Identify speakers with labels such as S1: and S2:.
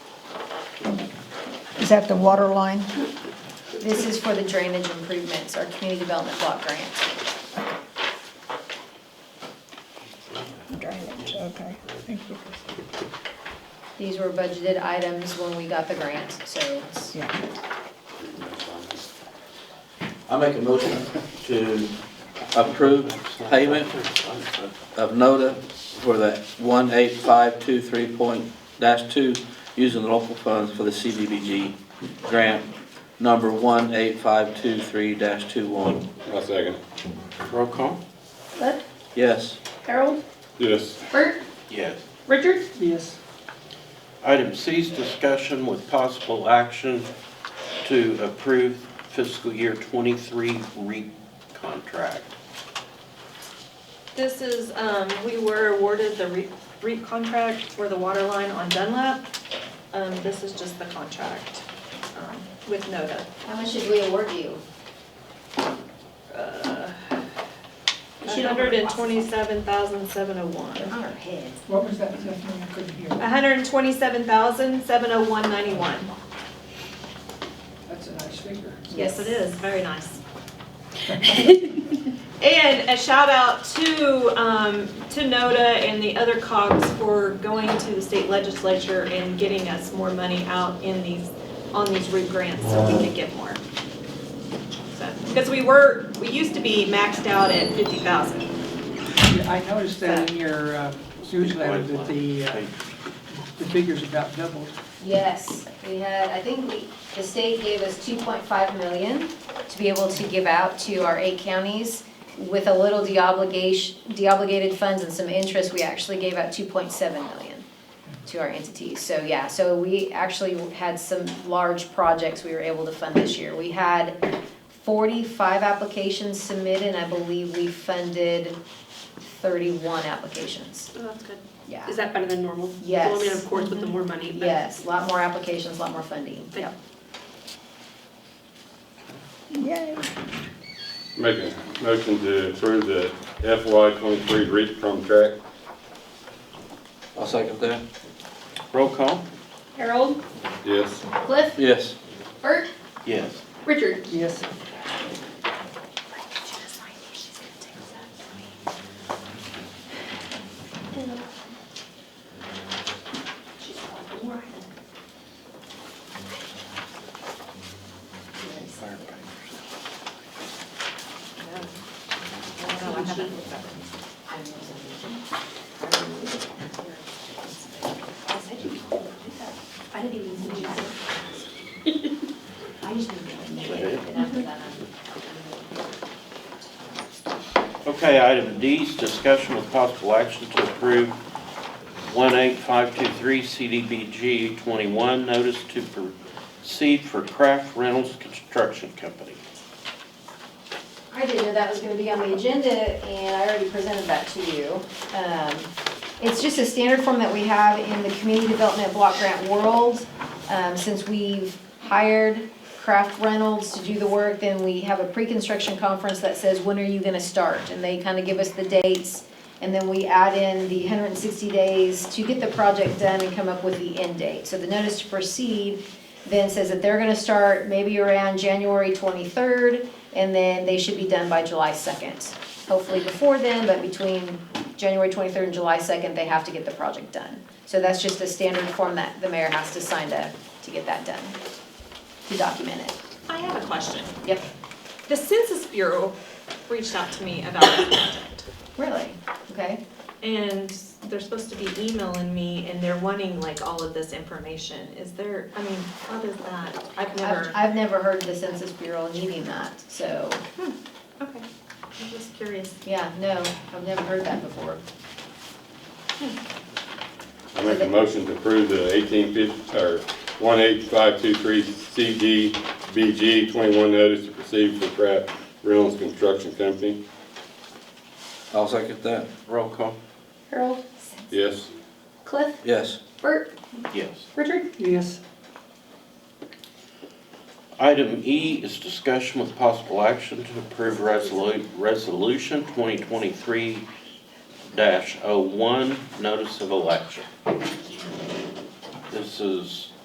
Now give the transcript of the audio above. S1: that the water line?
S2: This is for the drainage improvements, our community development block grant.
S1: Drainage, okay, thank you.
S2: These were budgeted items when we got the grant, so it's-
S1: Yeah.
S3: I make a motion to approve payment of NODA for the 18523.2 using the local funds for the CDBG grant number 18523-21.
S4: I second.
S5: Roll call?
S6: Bud,
S3: Yes.
S6: Harold,
S4: Yes.
S6: Bert,
S5: Yes.
S6: Richard,
S1: Yes.
S5: Item C is discussion with possible action to approve fiscal year 23 REAP contract.
S7: This is, um, we were awarded the REAP- REAP contract for the water line on Dunlap. Um, This is just the contract um, with NODA.
S2: how much did we award you?
S7: Uh,
S6: She don't remember.
S2: They're
S7: 127,701.
S2: on our heads.
S1: What was that, Stephanie, I couldn't hear.
S7: 127,701.91.
S1: That's a nice figure.
S7: Yes, it is, very nice. And a shout out to, um, to NODA and the other COGS for going to the state legislature and getting us more money out in these, on these root grants so we could get more. So, Because we were, we used to be maxed out at fifty thousand.
S6: Oh,
S8: I noticed that in your uh, newsletter that the, uh, the figures about doubled.
S2: Yes, we had, I think we, the state gave us 2.5 million to be able to give out to our eight counties. With a little deobligation, deobligated funds and some interest, we actually gave out 2.7 million to our entities. So yeah, so we actually had some large projects we were able to fund this year. We had 45 applications submitted, and I believe we funded 31 applications.
S7: Oh, that's good.
S2: Yeah.
S6: Is that better than normal?
S2: Yes. Mm-hmm.
S6: I mean, of course, with the more money, but.
S2: Yes, a lot more applications, a lot more funding.
S6: Thank you.
S1: Yay.
S4: Make a motion to approve the FY twenty-three REAP contract.
S3: I'll second that.
S5: Roll call?
S6: Harold,
S4: Yes.
S6: Cliff,
S3: Yes.
S6: Bert,
S5: Yes.
S6: Richard.
S8: Yes,
S2: I didn't even need that. I just need to make it, and after that,
S5: Okay, item D is discussion with possible action to approve 18523 CDBG 21 notice to proceed for Craft Reynolds Construction Company.
S2: I didn't know that was gonna be on the agenda, and I already presented that to you. Um, It's just a standard form that we have in the community development block grant world. Um, Since we've hired Kraft Reynolds to do the work, then we have a pre-construction conference that says, when are you gonna start? And they kind of give us the dates, and then we add in the 160 days to get the project done and come up with the end date. So the notice to proceed then says that they're gonna start maybe around January 23rd, and then they should be done by July 2nd. Hopefully before then, but between January 23rd and July 2nd, they have to get the project done. So that's just a standard form that the mayor has to sign to, to get that done, to document it.
S7: I have a question.
S2: Yep,
S7: The Census Bureau reached out to me about this project.
S2: really, okay,
S7: And they're supposed to be emailing me and they're wanting like all of this information. Is there, I mean, what is that? I've
S2: I've,
S7: never,
S2: I've never heard of the Census Bureau needing that, so.
S7: okay, I'm just curious.
S2: Yeah, no, I've never heard that before.
S4: I make a motion to approve the eighteen fifty, or one eight five two three CDBG twenty-one notice to proceed for Craft Reynolds Construction Company.
S3: I'll second that.
S5: Roll call?
S6: Harold,
S4: Yes.
S6: Cliff,
S3: Yes.
S6: Bert,
S5: Yes.
S6: Richard.
S8: yes.
S5: Item E is discussion with possible action to approve resolu- resolution 2023-01, notice of election. This is